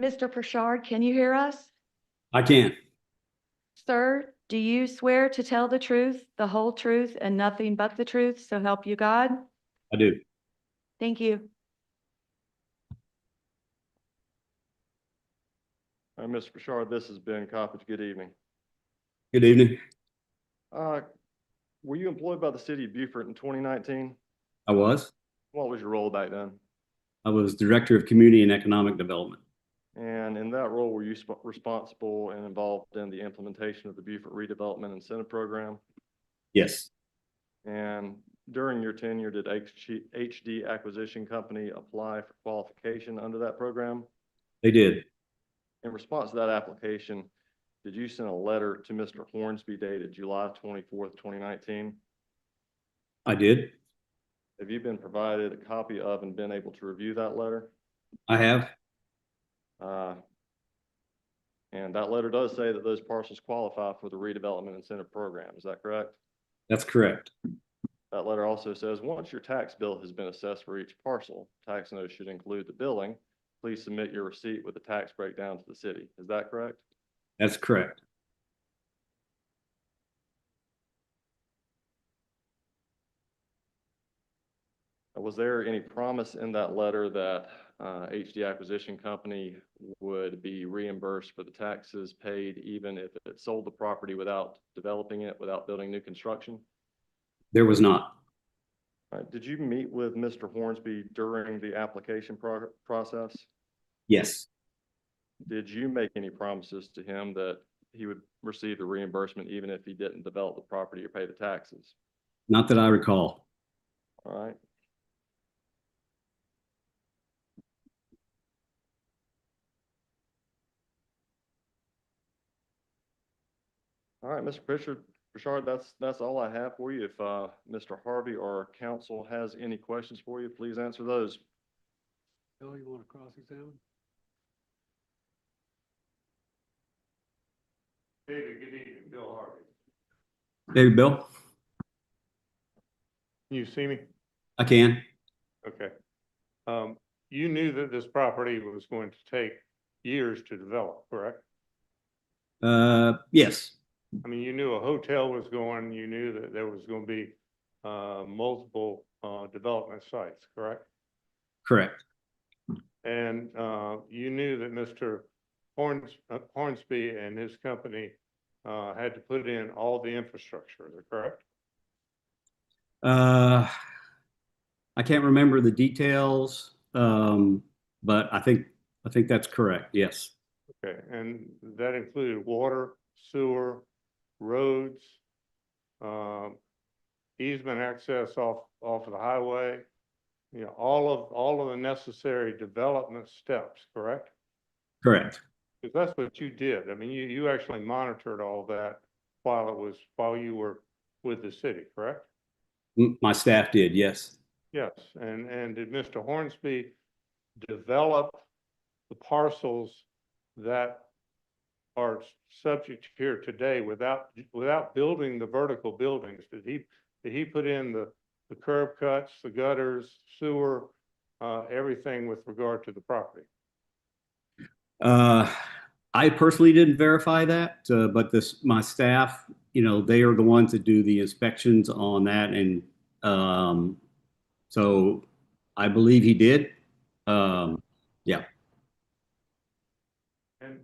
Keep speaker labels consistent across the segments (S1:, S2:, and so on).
S1: Mr. Pritchard, can you hear us?
S2: I can.
S1: Sir, do you swear to tell the truth, the whole truth, and nothing but the truth, so help you God?
S2: I do.
S1: Thank you.
S3: Uh, Mr. Bouchard, this is Ben Coppedge. Good evening.
S2: Good evening.
S3: Uh, Were you employed by the city of Beaufort in 2019?
S2: I was.
S3: What was your role back then?
S2: I was Director of Community and Economic Development.
S3: And in that role, were you sp- responsible and involved in the implementation of the Beaufort redevelopment incentive program?
S2: Yes,
S3: And during your tenure, did HG HD Acquisition Company apply for qualification under that program?
S2: they did.
S3: In response to that application, did you send a letter to Mr. Hornsby dated July 24th, 2019?
S2: I did.
S3: Have you been provided a copy of and been able to review that letter?
S2: I have.
S3: Uh, And that letter does say that those parcels qualify for the redevelopment incentive program. Is that correct?
S2: That's correct.
S3: That letter also says, once your tax bill has been assessed for each parcel, tax notice should include the billing. Please submit your receipt with the tax breakdown to the city. Is that correct?
S2: That's correct.
S3: Uh, Was there any promise in that letter that uh, HD Acquisition Company would be reimbursed for the taxes paid even if it sold the property without developing it, without building new construction?
S2: There was not.
S3: Uh, Did you meet with Mr. Hornsby during the application prog- process?
S2: Yes,
S3: Did you make any promises to him that he would receive the reimbursement even if he didn't develop the property or pay the taxes?
S2: not that I recall.
S3: All right. All right, Mr. Pritchard, Richard, that's, that's all I have for you. If, uh, Mr. Harvey or council has any questions for you, please answer those.
S4: Bill, you want to cross-examine? David, good evening, Bill Harvey.
S2: There you Bill.
S4: You see me?
S2: I can.
S4: Okay. Um, you knew that this property was going to take years to develop, correct?
S2: Uh, yes,
S4: I mean, you knew a hotel was going, you knew that there was going to be, uh, multiple, uh, development sites, correct?
S2: correct.
S4: And uh, you knew that Mr. Horns, uh, Hornsby and his company uh, had to put in all the infrastructure, is that correct?
S2: Uh, I can't remember the details, um, but I think, I think that's correct. Yes,
S4: Okay, and that included water, sewer, roads, um, easement access off, off of the highway. You know, all of, all of the necessary development steps, correct?
S2: correct.
S4: Because that's what you did. I mean, you, you actually monitored all that while it was, while you were with the city, correct?
S2: M- My staff did. Yes,
S4: Yes, and, and did Mr. Hornsby develop the parcels that are subject here today without, without building the vertical buildings? Did he, did he put in the, the curb cuts, the gutters, sewer, uh, everything with regard to the property?
S2: Uh, I personally didn't verify that, uh, but this, my staff, you know, they are the ones that do the inspections on that and, um, so I believe he did. Um,
S4: And,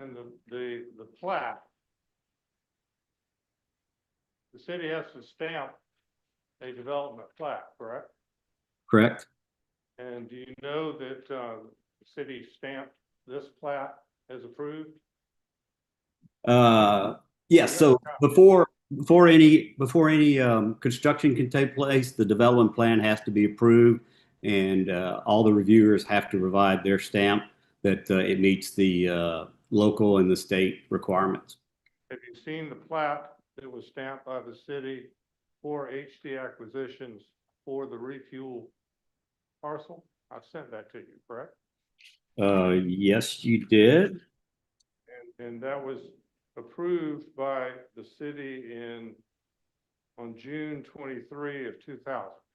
S4: and the, the, the plat. The city has to stamp a development plat, correct?
S2: correct?
S4: And do you know that uh, the city stamped this plat as approved?
S2: Uh, yes, so before, before any, before any, um, construction can take place, the development plan has to be approved and, uh, all the reviewers have to provide their stamp that, uh, it meets the, uh, local and the state requirements.
S4: Have you seen the plat that was stamped by the city for HD acquisitions for the refuel parcel? I sent that to you, correct?
S2: Uh, yes, you did.
S4: And, and that was approved by the city in, on June twenty-three of two thousand,